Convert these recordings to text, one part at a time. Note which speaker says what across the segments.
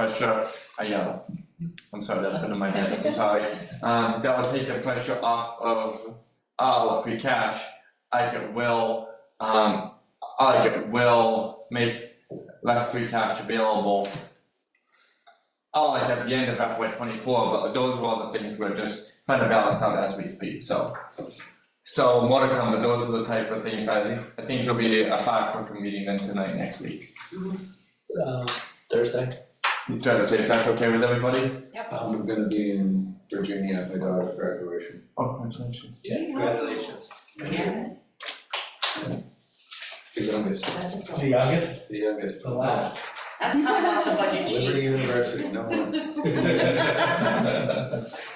Speaker 1: pressure, I yell. I'm sorry, that's been in my head, I'm sorry. Um, that will take the pressure off of our free cash. I could will, um, I could will make less free cash available. Oh, like at the end of FY twenty-four, but those are all the things we're just trying to balance out as we speak, so. So more to come, but those are the type of things I think, I think it'll be a far quicker meeting than tonight next week.
Speaker 2: uh, Thursday.
Speaker 1: Thursday, if that's okay with everybody?
Speaker 3: I'm gonna be in Virginia at my daughter's graduation.
Speaker 1: Oh, congratulations.
Speaker 2: Yeah, congratulations.
Speaker 4: Yeah,
Speaker 3: The youngest,
Speaker 4: that's just,
Speaker 2: The youngest,
Speaker 3: the youngest.
Speaker 2: the last.
Speaker 4: that's coming off the budget sheet.
Speaker 3: Liberty University, no one.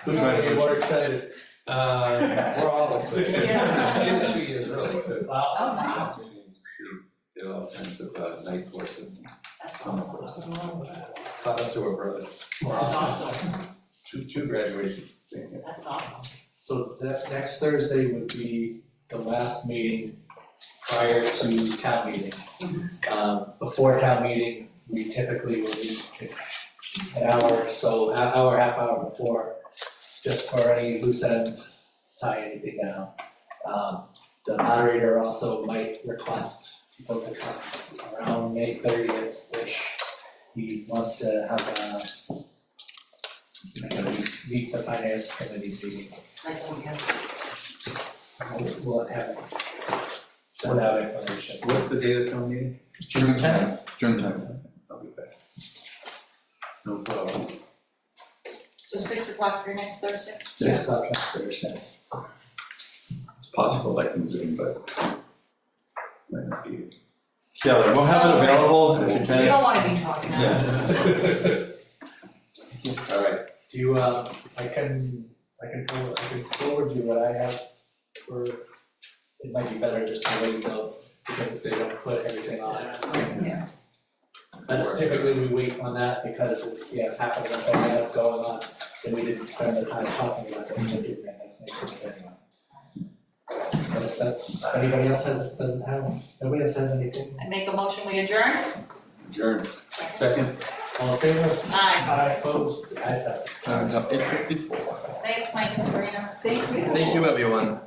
Speaker 2: Who's gonna get more excited? Uh,
Speaker 3: We're all excited.
Speaker 2: Yeah.
Speaker 3: Even two years early too.
Speaker 2: wow.
Speaker 4: Oh, nice.
Speaker 3: She did all kinds of uh, night courses,
Speaker 4: That's
Speaker 3: summer
Speaker 4: awesome.
Speaker 3: courses. Shout out to her brother,
Speaker 4: That's
Speaker 2: Wow.
Speaker 4: awesome,
Speaker 3: two, two graduations, same year.
Speaker 4: that's awesome.
Speaker 2: So that next Thursday would be the last meeting prior to town meeting. Um, before town meeting, we typically will meet an hour, or so an hour, half hour before, just for any loose ends, tie anything down. Um, the moderator also might request people to come around May thirtieth-ish. He wants to have a, like a meet, meet the finance committee meeting.
Speaker 4: Like, oh, yeah.
Speaker 2: We'll have, send out information.
Speaker 3: What's the date of town meeting?
Speaker 1: June tenth, June tenth.
Speaker 3: I'll be back. No problem.
Speaker 4: So six o'clock for next Thursday?
Speaker 2: Six o'clock next Thursday.
Speaker 3: It's possible I can zoom, but might not be.
Speaker 1: Yeah, like, we'll have it available if you
Speaker 4: We
Speaker 1: can.
Speaker 4: don't wanna be talking now.
Speaker 1: Yes.
Speaker 3: All right,
Speaker 2: Do you, um, I can, I can, forward- I can forward you what I have for, it might be better just to wait though, because if they don't put everything on.
Speaker 4: Yeah.
Speaker 2: But typically we wait on that because if we have half of them that end up going on, then we didn't spend the time talking about them, so we didn't end up making it anyway. But if that's, if anybody else has, doesn't have, nobody else has anything,
Speaker 4: I make a motion, we adjourn?
Speaker 3: adjourned. Second?
Speaker 2: all in favor?
Speaker 4: Aye,
Speaker 2: Aye. Opposed? The ayes have it.
Speaker 1: Time's up, eight fifty-four.
Speaker 4: thanks, Mike and Serena. Thank you.
Speaker 1: Thank you, everyone.